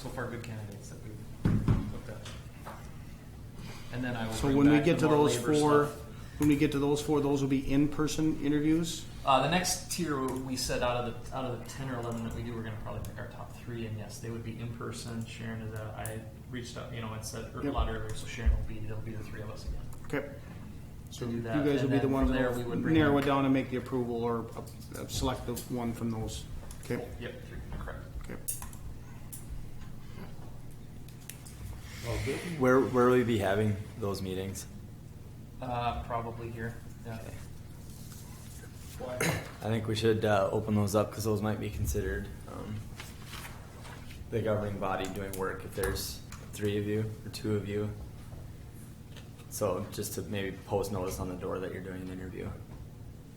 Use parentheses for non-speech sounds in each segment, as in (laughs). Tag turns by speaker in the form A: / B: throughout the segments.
A: so far good candidates that we've looked at. And then I will.
B: So
A: bring
B: when we
A: back
B: get
A: the
B: to
A: more
B: those
A: labor
B: four,
A: stuff.
B: when we get to those four, those will be in-person interviews?
A: Uh, the next tier we said out of the out of the ten or eleven that we do, we're going to probably pick our top three, and yes, they would be in person. Sharon is. A, I reached out, you know, and said er, a
B: Yep.
A: lot earlier, so Sharon will be. There'll be the three of us again.
B: Okay. So
A: do
B: you
A: that,
B: guys will
A: and
B: be the
A: then
B: ones
A: from
B: that
A: there we
B: will
A: would bring
B: narrow
A: in-
B: it down and make the approval or uh, uh, select the one from those. Okay,
A: Yep, three, correct.
B: okay.
C: Where where will we be having those meetings?
A: Uh, probably here. Yeah.
C: I think we should uh, open those up because those might be considered um, the governing body doing work if there's three of you or two of you. So just to maybe post notice on the door that you're doing an interview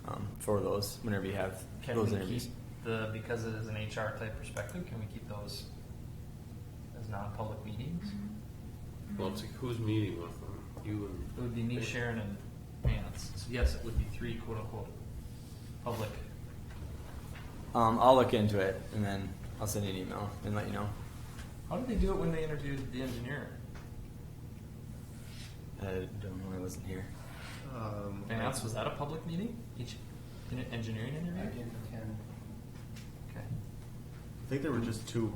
C: um, for those whenever you have
A: Can
C: those
A: we
C: interviews.
A: keep the because it is an HR type perspective? Can we keep those as non-public meetings?
D: Well, it's like who's meeting with them? You
A: It would be me, Sharon, and Vance. So yes, it would be three quote unquote public.
C: Um, I'll look into it and then I'll send you an email and let you know.
A: How did they do it when they interviewed the engineer?
C: I don't know. I wasn't here.
E: Um,
A: Vance, was that a public meeting? Each in an engineering
E: I
A: interview?
E: didn't attend.
A: Okay.
E: I think there were just two.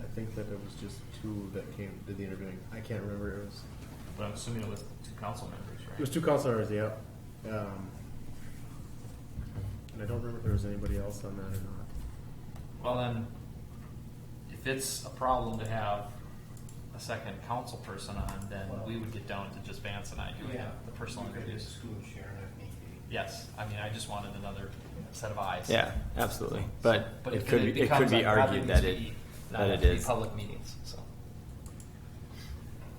E: I think that it was just two that came did the interviewing. I can't remember. It was
A: But I'm assuming it was two council members,
E: it was
A: right?
E: two counselors. Yeah. Um, and I don't remember if there was anybody else on that or not.
A: Well, then, if it's a problem to have a second council person on, then we would get down to just Vance and I doing the personal interviews. Yes, I mean, I just wanted another set of eyes.
C: Yeah, absolutely. But,
A: But
C: it could be, it
A: becomes
C: could be
A: I'd rather
C: argued that it
A: be not have
C: that it
A: three
C: is.
A: Public meetings, so.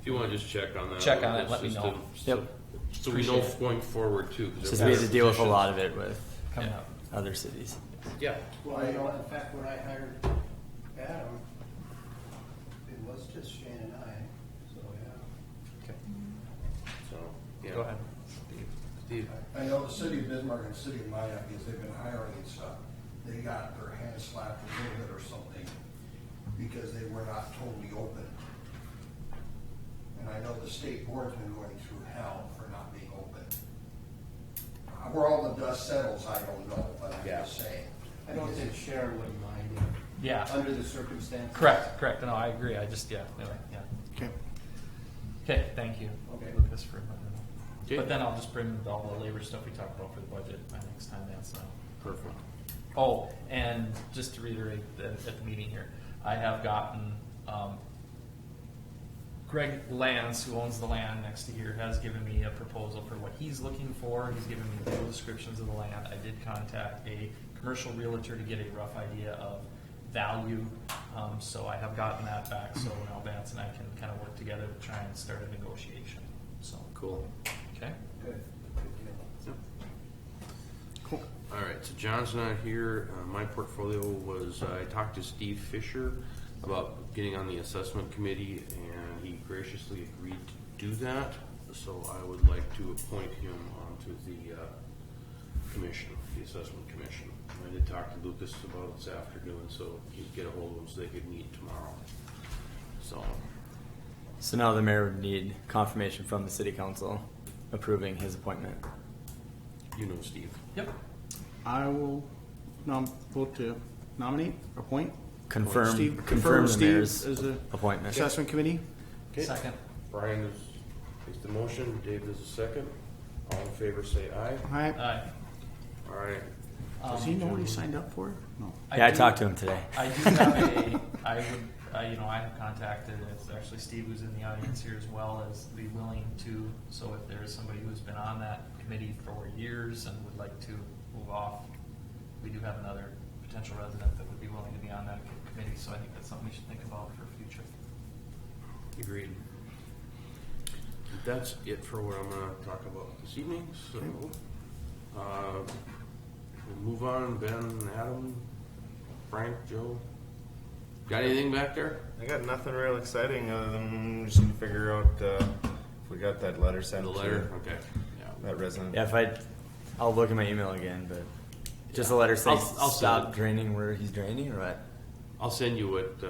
D: If you want to just check on that.
A: Check on it,
D: It's
A: let me
D: just
A: know.
D: a-
C: Yep.
D: So we know
A: Appreciate it.
D: going forward too. 'cause
C: Because
D: there
C: we
D: are
C: had to deal with a
D: positions.
C: lot of it with
A: Coming
D: Yeah.
A: up.
C: other cities.
D: Yeah,
F: Well, you know, in fact, when I hired Adam, it was just Shane and I, so, yeah.
D: so, yeah.
A: Go ahead.
D: Steve,
F: I know the city of Bismarck and city of Minnetonka, because they've been hiring and stuff, they got their hands slapped a little bit or something, because they were not totally open. And I know the state board's been going through hell for not being open. Uh, Where all the dust settles, I don't know, but I'm
D: Yeah.
F: just saying.
E: I don't think Sharon would mind it,
A: Yeah,
E: under the circumstances.
A: correct, correct. No, I agree. I just, yeah, anyway, yeah.
B: Okay.
A: Okay, thank you.
E: Okay.
A: Lucas for letting me know.
D: Okay.
A: But then I'll just bring all the labor stuff we talked about for the budget by next time, that's not.
D: perfect.
A: Oh, and just to reiterate the- at the meeting here, I have gotten, um, Greg Lance, who owns the land next to here, has given me a proposal for what he's looking for. He's given me full descriptions of the land. I did contact a commercial realtor to get a rough idea of value. Um, so I have gotten that back, so now Vance and I can kind of work together to try and start a negotiation, so.
D: Cool.
A: Okay?
F: Good, good deal.
B: Cool.
D: All right, so John's not here. Uh, my portfolio was, uh, I talked to Steve Fisher about getting on the assessment committee, and he graciously agreed to do that. So I would like to appoint him onto the uh, commission, the assessment commission. I did talk to Lucas about it this afternoon, so he'd get a hold of him so they could meet tomorrow. So,
C: So now the mayor would need confirmation from the city council approving his appointment.
D: you know Steve.
A: Yep.
B: I will nom, vote to nominate, appoint
C: Confirm,
B: Steve-
C: confirm,
B: confirm
C: the
B: Steve
C: mayor's
B: as the-
C: appointment.
B: assessment committee.
A: Second.
D: Brian is, makes the motion, Dave does the second. All in favor, say aye.
B: All right.
A: Aye.
D: All right,
B: Does he know what he signed up for? No.
C: yeah, I
A: Um, do-
C: talked to him today.
A: I do have a, I would, uh, you know, I have contacted, it's actually Steve who's in the audience here as well, as be willing to, so if there is somebody who's been on that committee for years and would like to move off, we do have another potential resident that would be willing to be on that committee, so I think that's something we should think about for future.
D: Agreed. That's it for what I'm gonna talk about this evening, so, uh, we'll move on, Ben, Adam, Frank, Joe. Got anything back there?
G: I got nothing real exciting other than just gonna figure out uh, if we got that letter sent.
D: The
G: to
D: letter, okay, yeah.
G: That resident.
C: (laughs) Yeah, if I, I'll look at my email again, but just a letter saying
D: I'll- I'll send
C: stop
D: it.
C: draining where he's draining, or what?
D: I'll send you what, uh,